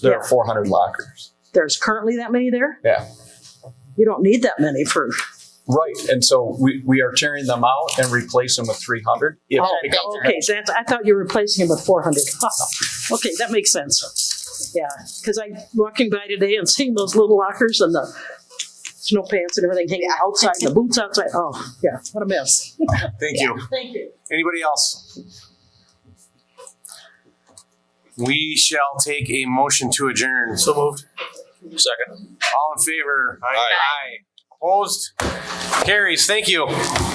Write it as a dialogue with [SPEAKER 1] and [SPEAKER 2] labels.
[SPEAKER 1] There are 400 lockers.
[SPEAKER 2] There's currently that many there?
[SPEAKER 1] Yeah.
[SPEAKER 2] You don't need that many for,
[SPEAKER 1] Right. And so we, we are tearing them out and replace them with 300. If- Oh, because-
[SPEAKER 2] Oh, okay, that's, I thought you were replacing them with four hundred. Okay, that makes sense. Yeah, because I, walking by today and seeing those little lockers and the snow pants and everything hanging outside, the boots outside, oh, yeah, what a mess.
[SPEAKER 3] Thank you.
[SPEAKER 2] Thank you.
[SPEAKER 3] Anybody else? We shall take a motion to adjourn. So moved. Second. All in favor? Aye. Opposed? Carries. Thank you.